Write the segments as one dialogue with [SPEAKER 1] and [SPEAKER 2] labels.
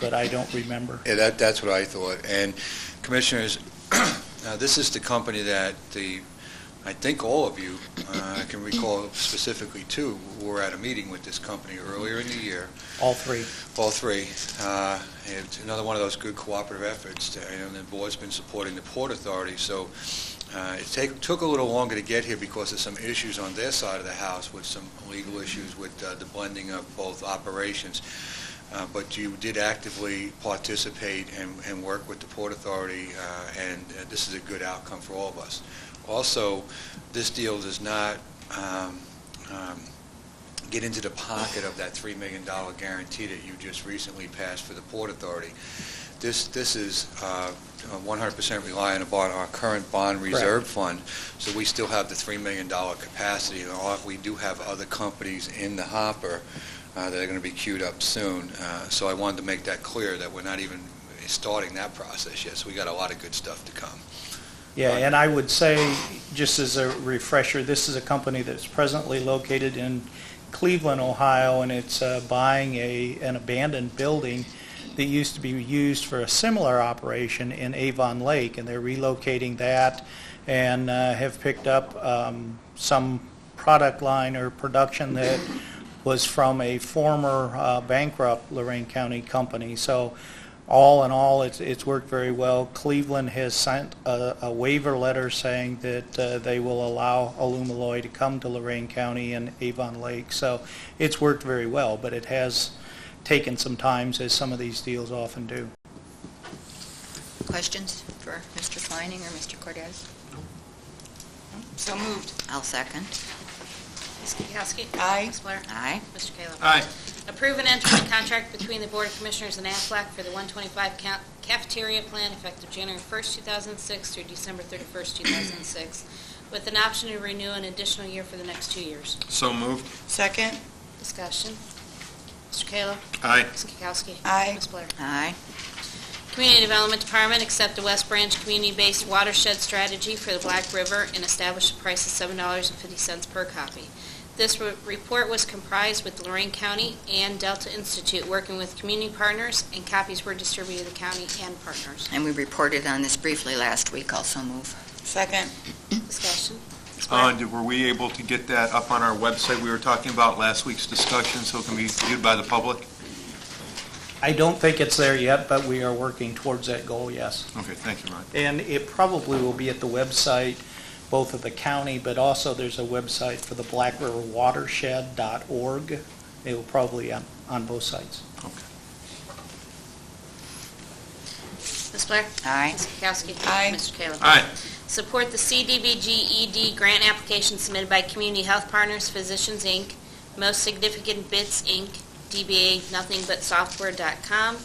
[SPEAKER 1] but I don't remember.
[SPEAKER 2] Yeah, that, that's what I thought. And Commissioners, uh, this is the company that the, I think all of you, uh, I can recall specifically two, were at a meeting with this company earlier in the year,
[SPEAKER 1] All three.
[SPEAKER 2] all three. Uh, It's another one of those good cooperative efforts, that, you know, and the board's been supporting the Port Authority, so uh, it take- took a little longer to get here because of some issues on their side of the house with some legal issues with uh, the blending of both operations. Uh, But you did actively participate and, and work with the Port Authority, uh, and uh, this is a good outcome for all of us. Also, this deal does not um, um, get into the pocket of that $3 million guarantee that you just recently passed for the Port Authority. This, this is uh, 100% reliant upon our current bond reserve fund, so we still have the $3 million capacity, and all- we do have other companies in the hopper uh, that are going to be queued up soon. Uh, So I wanted to make that clear, that we're not even starting that process yet, so we got a lot of good stuff to come.
[SPEAKER 1] Yeah, and I would say, just as a refresher, this is a company that's presently located in Cleveland, Ohio, and it's uh, buying a, an abandoned building that used to be used for a similar operation in Avon Lake, and they're relocating that and uh, have picked up um, some product line or production that was from a former uh, bankrupt Lorraine County company. So all in all, it's, it's worked very well. Cleveland has sent a, a waiver letter saying that uh, they will allow Alumaloy to come to Lorraine County and Avon Lake. So it's worked very well, but it has taken some times, as some of these deals often do.
[SPEAKER 3] Questions for Mr. Twining or Mr. Cordez? So moved. I'll second.
[SPEAKER 4] Ms. Kukowski.
[SPEAKER 3] Aye.
[SPEAKER 4] Ms. Blair.
[SPEAKER 3] Aye.
[SPEAKER 4] Mr. Kayla.
[SPEAKER 5] Aye.
[SPEAKER 4] Approve and enter a contract between the Board of Commissioners and Aflac for the 125 ca- cafeteria plan effective January 1st, 2006 through December 31st, 2006, with an option to renew an additional year for the next two years.
[SPEAKER 5] So moved.
[SPEAKER 6] Second,
[SPEAKER 4] Discussion. Mr. Kayla.
[SPEAKER 5] Aye.
[SPEAKER 4] Ms. Kukowski.
[SPEAKER 6] Aye.
[SPEAKER 4] Ms. Blair.
[SPEAKER 3] Aye.
[SPEAKER 4] Community Development Department accept the West Branch Community-Based Watershed Strategy for the Black River and establish a price of $7.50 per copy. This re- report was comprised with Lorraine County and Delta Institute working with community partners, and copies were distributed to the county and partners.
[SPEAKER 3] And we reported on this briefly last week, also move.
[SPEAKER 6] second,
[SPEAKER 4] Discussion. Ms.
[SPEAKER 5] Uh,
[SPEAKER 4] Blair?
[SPEAKER 5] did- Were we able to get that up on our website? We were talking about last week's discussion, so it can be viewed by the public?
[SPEAKER 1] I don't think it's there yet, but we are working towards that goal, yes.
[SPEAKER 5] Okay, thank you, Ron.
[SPEAKER 1] And it probably will be at the website, both of the county, but also there's a website for the Black River Watershed.org. It will probably on, on both sites.
[SPEAKER 4] Ms. Blair?
[SPEAKER 3] Aye.
[SPEAKER 4] Ms. Kukowski?
[SPEAKER 6] Aye.
[SPEAKER 4] Mr. Kayla?
[SPEAKER 5] Aye.
[SPEAKER 4] Support the CDBG ED E grant application submitted by Community Health Partners Physicians, Inc., Most Significant Bits, Inc., DBA Nothing But Software.com,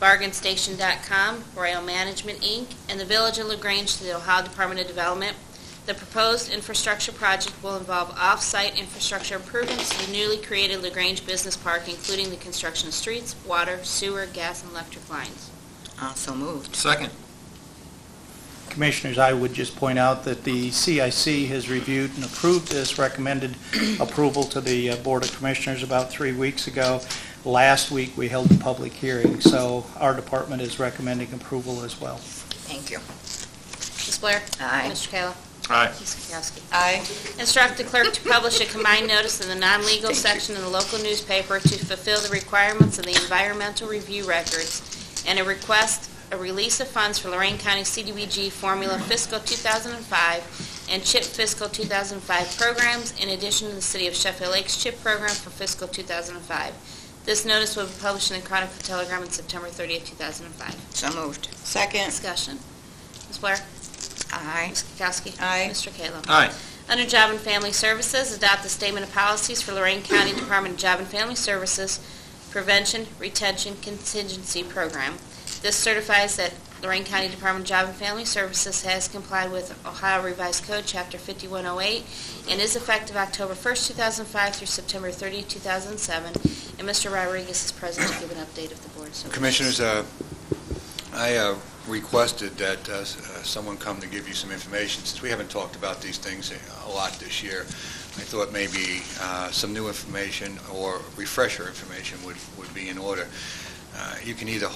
[SPEAKER 4] BargainStation.com, Royal Management, Inc., and the Village of LaGrange to the Ohio Department of Development. The proposed infrastructure project will involve off-site infrastructure improvements to the newly created LaGrange Business Park, including the construction of streets, water, sewer, gas, and electric lines.
[SPEAKER 3] Also moved.
[SPEAKER 5] Second.
[SPEAKER 1] Commissioners, I would just point out that the CIC has reviewed and approved this, recommended approval to the uh, Board of Commissioners about three weeks ago. Last week, we held a public hearing, so our department is recommending approval as well.
[SPEAKER 3] Thank you.
[SPEAKER 4] Ms. Blair?
[SPEAKER 3] Aye.
[SPEAKER 4] Mr. Kayla?
[SPEAKER 5] Aye.
[SPEAKER 4] Ms. Kukowski?
[SPEAKER 6] aye,
[SPEAKER 4] Instruct the clerk to publish a combined notice in the non-legal section in the local newspaper to fulfill the requirements of the environmental review records, and a request, a release of funds for Lorraine County CDBG Formula Fiscal 2005 and CHIP Fiscal 2005 programs, in addition to the City of Sheffield Lakes CHIP program for fiscal 2005. This notice will be published in the Chronicle Telegram on September 30th, 2005.
[SPEAKER 3] So moved.
[SPEAKER 6] second,
[SPEAKER 4] Discussion. Ms. Blair?
[SPEAKER 3] Aye.
[SPEAKER 4] Ms. Kukowski?
[SPEAKER 6] Aye.
[SPEAKER 4] Mr. Kayla?
[SPEAKER 5] Aye.
[SPEAKER 4] Under Job and Family Services, adopt the statement of policies for Lorraine County Department of Job and Family Services Prevention Retention Contingency Program. This certifies that Lorraine County Department of Job and Family Services has complied with Ohio Revised Code, Chapter 5108, and is effective October 1st, 2005 through September 30, 2007. And Mr. Rodriguez is present to give an update of the board. So-
[SPEAKER 2] Commissioners, uh, I uh, requested that uh, s- uh, someone come to give you some information, since we haven't talked about these things a lot this year. I thought maybe uh, some new information or refresher information would would be in order. uh, you can either